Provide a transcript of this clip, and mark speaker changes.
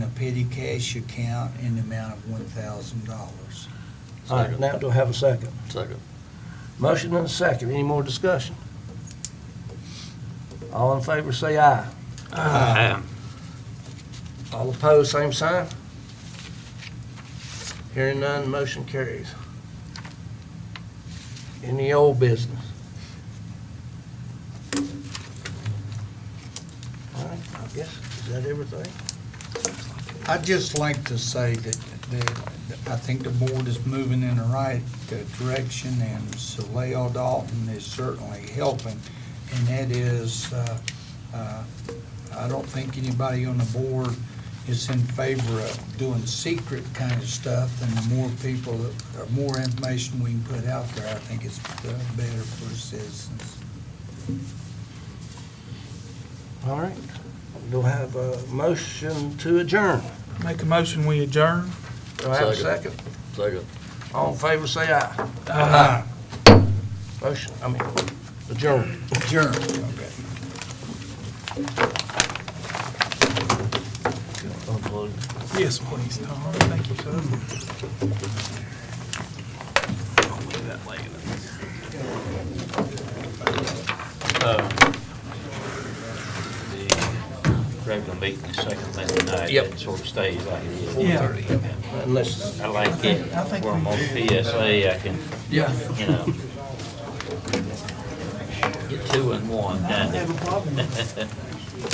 Speaker 1: city cash account in the amount of one thousand dollars.
Speaker 2: All right, now do I have a second?
Speaker 3: Second.
Speaker 2: Motion and a second. Any more discussion? All in favor, say aye.
Speaker 3: Aye.
Speaker 2: All opposed, same sign. Hearing none, motion carries. Any old business? All right, I guess, is that everything?
Speaker 1: I'd just like to say that, that I think the board is moving in the right uh, direction, and Soleo Dalton is certainly helping. And that is, uh, uh, I don't think anybody on the board is in favor of doing secret kind of stuff. And the more people, that- or more information we can put out there, I think it's uh, better for citizens.
Speaker 2: All right, do I have a motion to adjourn?
Speaker 4: Make a motion, we adjourn?
Speaker 2: Do I have a
Speaker 3: Second.
Speaker 2: second?
Speaker 3: Second.
Speaker 2: All in favor, say aye.
Speaker 1: Aye.
Speaker 2: Motion, I mean, adjourn.
Speaker 1: Adjourned, okay.
Speaker 4: Yes, please, Tom. Thank you, sir.
Speaker 5: the regular meeting is second Monday night.
Speaker 2: Yep.
Speaker 5: It sort of stays like it is.
Speaker 4: Yeah.
Speaker 2: Unless,
Speaker 5: I like it,
Speaker 4: I think
Speaker 5: where I'm
Speaker 4: we-
Speaker 5: on PSA, I can,
Speaker 2: yeah.
Speaker 5: you know, get two and one, kind of.